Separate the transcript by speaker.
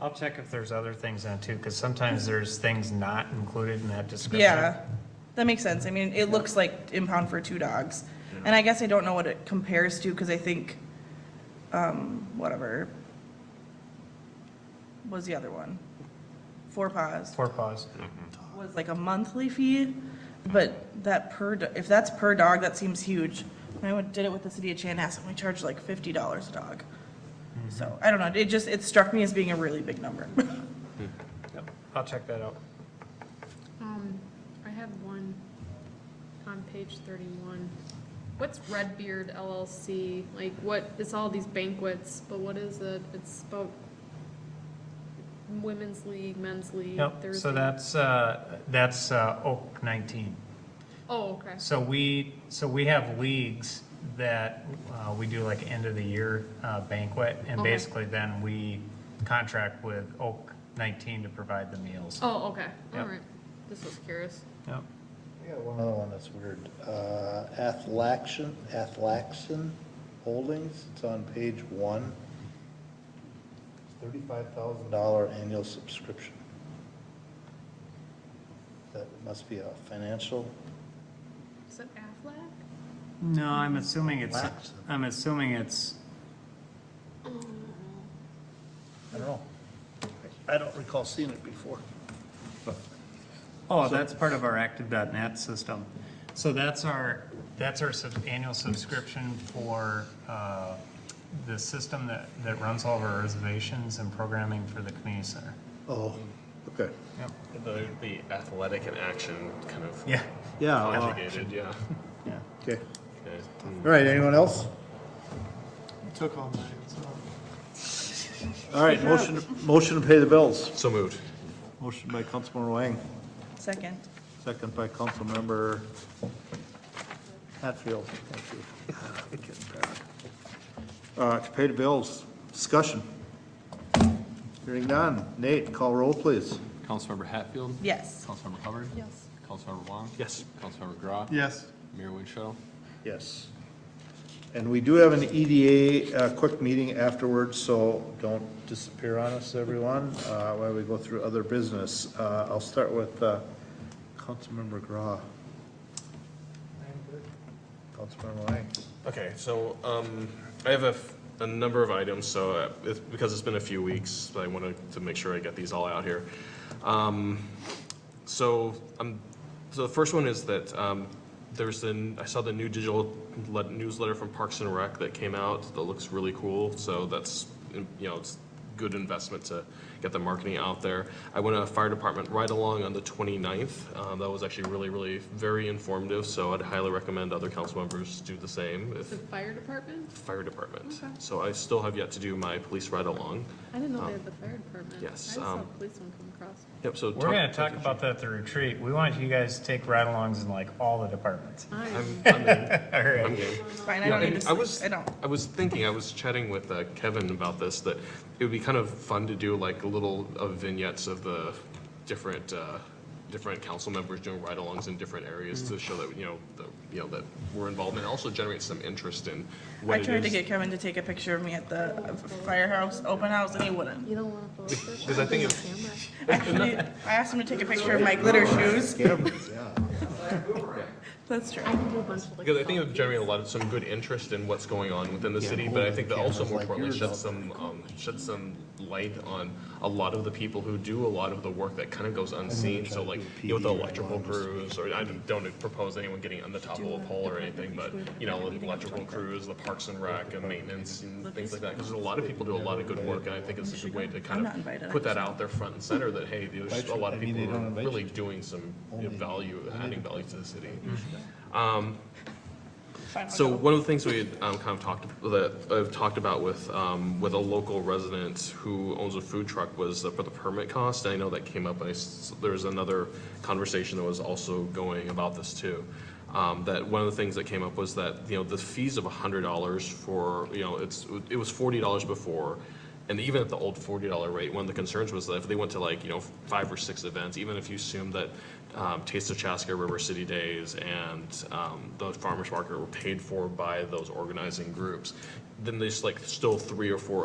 Speaker 1: I'll check if there's other things on it too, because sometimes there's things not included in that description.
Speaker 2: Yeah, that makes sense. I mean, it looks like impound for two dogs. And I guess I don't know what it compares to, because I think, um, whatever. Was the other one? Four paws
Speaker 1: Four paws.
Speaker 2: was like a monthly fee, but that per, do- if that's per dog, that seems huge. When I went- did it with the city of Chanhassen, we charged like fifty dollars a dog.
Speaker 3: Mm-hmm.
Speaker 2: So, I don't know, it just, it struck me as being a really big number.
Speaker 1: Yep, I'll check that out.
Speaker 4: Um, I have one on page thirty-one. What's Redbeard LLC? Like, what, it's all these banquets, but what is it? It's about women's league, men's league,
Speaker 1: Yep,
Speaker 4: Thursday.
Speaker 1: so that's, uh, that's uh, Oak 19.
Speaker 4: Oh, okay.
Speaker 1: So we, so we have leagues that uh, we do like end of the year uh, banquet, and
Speaker 4: Okay.
Speaker 1: basically then we contract with Oak 19 to provide the meals.
Speaker 4: Oh, okay, all
Speaker 1: Yep.
Speaker 4: right. Just was curious.
Speaker 1: Yep.
Speaker 5: Yeah, one other one that's weird. Uh, Athlaxion, Athlaxon Holdings, it's on page one. Thirty-five thousand dollar annual subscription. That must be a financial,
Speaker 4: Is it Aflac?
Speaker 1: No, I'm assuming it's,
Speaker 5: Lax.
Speaker 1: I'm assuming it's,
Speaker 5: I don't know. I don't recall seeing it before.
Speaker 1: oh, that's part of our active.net system. So that's our, that's our sub- annual subscription for uh, the system that, that runs all of our reservations and programming for the community center.
Speaker 5: Oh, okay.
Speaker 1: Yep.
Speaker 3: The, the athletic and action kind of
Speaker 1: Yeah.
Speaker 5: Yeah. uh,
Speaker 3: conjugated, yeah.
Speaker 1: Yeah.
Speaker 5: Okay.
Speaker 3: Okay.
Speaker 5: All right, anyone else?
Speaker 6: Took all mine, so.
Speaker 5: All right, motion, motion to pay the bills.
Speaker 3: So moved.
Speaker 5: Motion by Councilmember Wang,
Speaker 2: Second.
Speaker 5: second by Councilmember Hatfield. Thank you. Ah, I'm getting tired. Uh, to pay the bills, discussion. Hearing none. Nate, call roll, please.
Speaker 7: Councilmember Hatfield?
Speaker 2: Yes.
Speaker 7: Councilmember Hubbard?
Speaker 4: Yes.
Speaker 7: Councilmember Wong?
Speaker 3: Yes.
Speaker 7: Councilmember Grau?
Speaker 6: Yes.
Speaker 7: Mayor Winchell?
Speaker 5: Yes. And we do have an EDA, uh, quick meeting afterwards, so don't disappear on us, everyone, uh, while we go through other business. Uh, I'll start with, uh, Councilmember Grau. Councilmember Lang.
Speaker 3: Okay, so um, I have a, f- a number of items, so uh, it's, because it's been a few weeks, I wanted to make sure I get these all out here. Um, so, um, so the first one is that um, there's an, I saw the new digital le- newsletter from Parks and Rec that came out that looks really cool. So that's, you know, it's good investment to get the marketing out there. I went on a fire department ride along on the 29th. Um, that was actually really, really very informative. So I'd highly recommend other council members do the same if
Speaker 4: The fire department?
Speaker 3: fire department.
Speaker 4: Okay.
Speaker 3: So I still have yet to do my police ride along.
Speaker 4: I didn't know
Speaker 3: Um,
Speaker 4: they had the fire department. I
Speaker 3: yes,
Speaker 4: just saw a
Speaker 3: um,
Speaker 4: police one come across.
Speaker 3: Yep, so.
Speaker 1: We're gonna talk about that at the retreat. We want you guys to take ride-alongs in like all the departments.
Speaker 4: I
Speaker 3: I'm, I'm in.
Speaker 1: All
Speaker 3: I'm
Speaker 1: right.
Speaker 3: game.
Speaker 2: Fine, I
Speaker 3: Yeah,
Speaker 2: don't need
Speaker 3: and
Speaker 2: to,
Speaker 3: I was,
Speaker 2: s- I don't.
Speaker 3: I was thinking, I was chatting with uh, Kevin about this, that it would be kind of fun to do like little uh, vignettes of the different, uh, different council members doing ride-alongs in different areas
Speaker 2: Mm.
Speaker 3: to show that, you know, the, you know, that we're involved and it also generates some interest in what
Speaker 2: I
Speaker 3: it
Speaker 2: tried to
Speaker 3: is.
Speaker 2: get Kevin to take a picture of me at the firehouse open house and he wouldn't.
Speaker 4: You don't want to post it?
Speaker 3: Because I think it's-
Speaker 2: Actually, I asked him to take a picture of my glitter shoes.
Speaker 5: Cameras, yeah.
Speaker 2: That's true.
Speaker 4: I can do a bunch of like.
Speaker 3: Because I think it would generate a lot of some good interest in what's going on within the city, but I think that also more importantly sheds some, um, sheds some light on a lot of the people who do a lot of the work that kind of goes unseen, so like, you know, with the electrical crews, or I don't propose anyone getting on the top of a pole or anything, but, you know, with electrical crews, the parks and rec and maintenance and things like that, because a lot of people do a lot of good work, and I think it's a good way to kind
Speaker 2: I'm not invited,
Speaker 3: of
Speaker 2: I
Speaker 3: put that
Speaker 2: just-
Speaker 3: out there front and center, that, hey, there's a lot of
Speaker 5: I mean,
Speaker 3: people
Speaker 5: they
Speaker 3: who are
Speaker 5: don't invite
Speaker 3: really doing some you know, value, adding value to the city.
Speaker 5: Mm-hmm.
Speaker 2: Fine, I'll
Speaker 3: So
Speaker 2: go.
Speaker 3: one of the things we had um, kind of talked, that I've talked about with, um, with a local resident who owns a food truck was the- for the permit cost. I know that came up, I s- there was another conversation that was also going about this too. Um, That one of the things that came up was that, you know, the fees of hundred dollars for, you know, it's, it was forty dollars before. And even at the old forty dollar rate, one of the concerns was that if they went to like, you know, five or six events, even if you assume that um, Taste of Chaska, River City Days, and um, the farmers market were paid for by those organizing groups, then there's like still three or four